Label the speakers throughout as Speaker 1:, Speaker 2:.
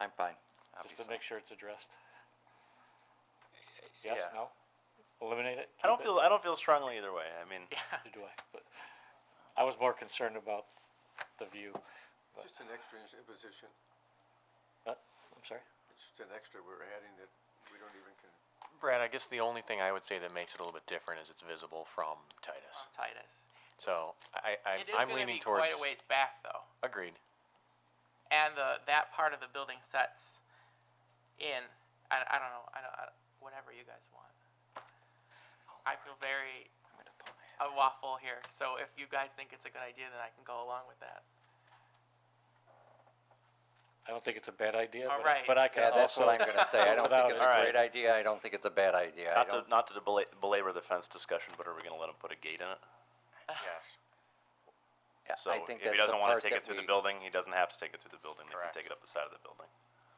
Speaker 1: I'm fine,
Speaker 2: just
Speaker 1: obviously.
Speaker 2: to make sure it's addressed? Yes,
Speaker 3: yeah.
Speaker 2: no? Eliminate it?
Speaker 3: I don't
Speaker 2: Keep it?
Speaker 3: feel I don't feel strongly either way. I mean,
Speaker 2: Neither do I, but I was more concerned about the view.
Speaker 4: Just an extra ins- imposition,
Speaker 2: Uh, I'm sorry?
Speaker 4: just an extra we're adding that we don't even can,
Speaker 5: Brad, I guess the only thing I would say that makes it a little bit different is it's visible from Titus.
Speaker 6: Titus.
Speaker 5: So I, I
Speaker 6: It is
Speaker 5: I'm
Speaker 6: going to
Speaker 5: leaning
Speaker 6: be
Speaker 5: towards
Speaker 6: quite a ways back though,
Speaker 5: agreed.
Speaker 6: and the that part of the building sets in. I, I don't know. I don't. I, whatever you guys want. I feel very a waffle here. So if you guys think it's a good idea, then I can go along with that.
Speaker 2: I don't think it's a bad idea,
Speaker 6: All
Speaker 2: but,
Speaker 6: right.
Speaker 2: but I can
Speaker 1: Yeah,
Speaker 2: also.
Speaker 1: that's what I'm gonna say. I don't
Speaker 2: Without
Speaker 1: think it's
Speaker 2: it.
Speaker 1: a
Speaker 3: Alright.
Speaker 1: great idea. I don't think it's a bad idea. I
Speaker 3: not to
Speaker 1: don't,
Speaker 3: not to debela- belabor the fence discussion, but are we going to let him put a gate in it?
Speaker 5: Yes.
Speaker 1: yeah,
Speaker 3: So
Speaker 1: I think that's
Speaker 3: if he
Speaker 1: the
Speaker 3: doesn't want
Speaker 1: part
Speaker 3: to take
Speaker 1: that
Speaker 3: it through
Speaker 1: we-
Speaker 3: the building, he doesn't have to take it through the building. They
Speaker 5: Correct.
Speaker 3: can take it up the side of the building.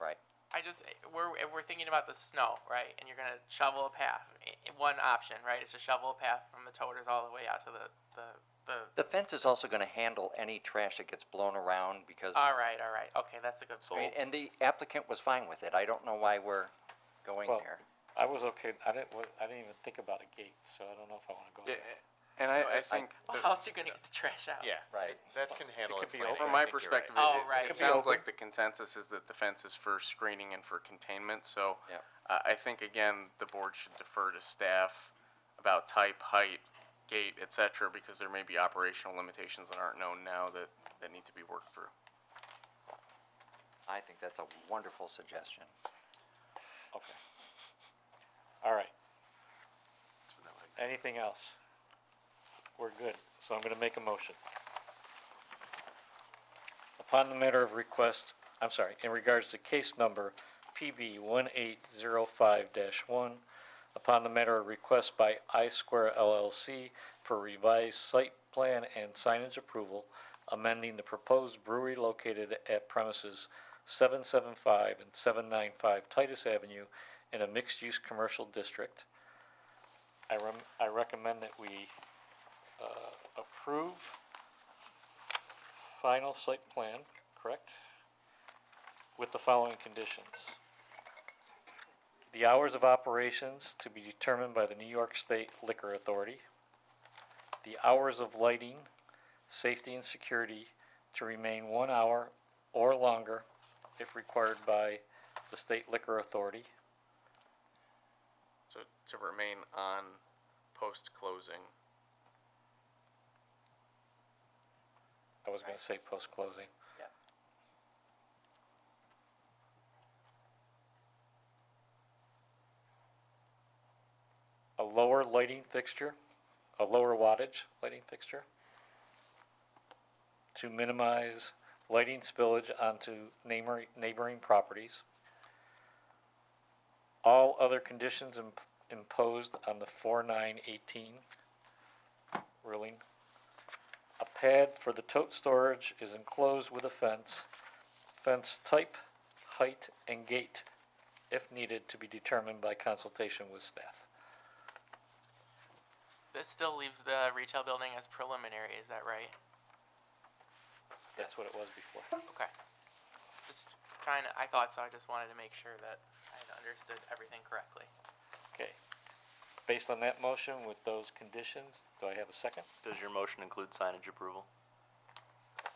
Speaker 1: Right.
Speaker 6: I just we're we're thinking about the snow, right? And you're gonna shovel a path. I- One option, right, is to shovel a path from the toters all the way out to the the the.
Speaker 1: The fence is also gonna handle any trash that gets blown around because, I
Speaker 6: All right, all right, okay, that's a good
Speaker 1: mean,
Speaker 6: point.
Speaker 1: and the applicant was fine with it. I don't know why we're going
Speaker 2: Well,
Speaker 1: there.
Speaker 2: I was okay, I didn't, wa- I didn't even think about a gate, so I don't know if I wanna go
Speaker 7: Yeah,
Speaker 2: there.
Speaker 7: and I, I
Speaker 1: I-
Speaker 7: think
Speaker 6: Well,
Speaker 7: that-
Speaker 6: how else are you gonna get the trash out?
Speaker 5: Yeah.
Speaker 1: Right.
Speaker 5: That can handle it.
Speaker 2: could be
Speaker 5: fine.
Speaker 2: open.
Speaker 7: from
Speaker 5: I
Speaker 7: my
Speaker 5: think you're
Speaker 7: perspective,
Speaker 5: right.
Speaker 6: Oh,
Speaker 7: it,
Speaker 6: right.
Speaker 7: it,
Speaker 6: Could be
Speaker 7: sounds
Speaker 2: open.
Speaker 7: like the consensus is that the fence is for screening and for containment. So
Speaker 1: Yep.
Speaker 7: uh, I think again the board should defer to staff about type, height, gate, etc., because there may be operational limitations that aren't known now that that need to be worked through.
Speaker 1: I think that's a wonderful suggestion.
Speaker 2: Okay. All right. Anything else? We're good, so I'm gonna make a motion. Upon the matter of request, I'm sorry, in regards to case number PB one eight zero five one, upon the matter of request by I Square LLC for revised site plan and signage approval, amending the proposed brewery located at premises seven seven five and seven nine five Titus Avenue in a mixed-use commercial district. I rem, I recommend that we, uh, approve final site plan, correct? With the following conditions. The hours of operations to be determined by the New York State Liquor Authority. The hours of lighting, safety and security to remain one hour or longer if required by the State Liquor Authority.
Speaker 7: So to remain on post closing.
Speaker 2: I was gonna say post-closing.
Speaker 1: Yeah.
Speaker 2: a lower lighting fixture, a lower wattage lighting fixture to minimize lighting spillage onto neighboring, neighboring properties. All other conditions imp- imposed on the four nine eighteen ruling. A pad for the tote storage is enclosed with a fence. Fence type, height, and gate, if needed, to be determined by consultation with staff.
Speaker 6: This still leaves the retail building as preliminary, is that right?
Speaker 2: That's what it was before.
Speaker 6: Okay. Just trying to, I thought so, I just wanted to make sure that I had understood everything correctly.
Speaker 2: Okay. Based on that motion with those conditions, do I have a second?
Speaker 3: Does your motion include signage approval?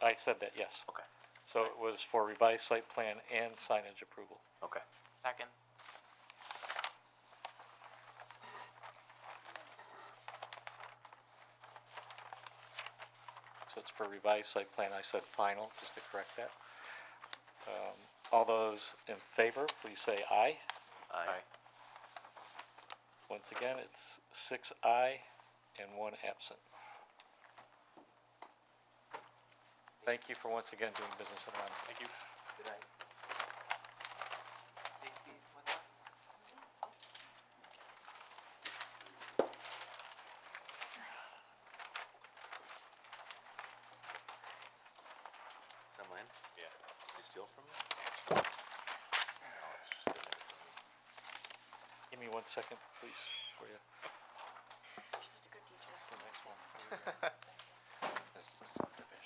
Speaker 2: I said that, yes.
Speaker 3: Okay.
Speaker 2: So it was for revised site plan and signage approval.
Speaker 3: Okay.
Speaker 6: Second,
Speaker 2: So it's for revised site plan, I said final, just to correct that. Um, All those in favor, please say aye.
Speaker 3: Aye.
Speaker 2: Once again, it's six aye and one absent. Thank you for once again doing business in Lima. Thank you.
Speaker 3: Is that mine? Yeah. Did you steal from me?
Speaker 2: Give me one second, please, for you.
Speaker 8: She's such a good teacher.
Speaker 1: This is subdivision.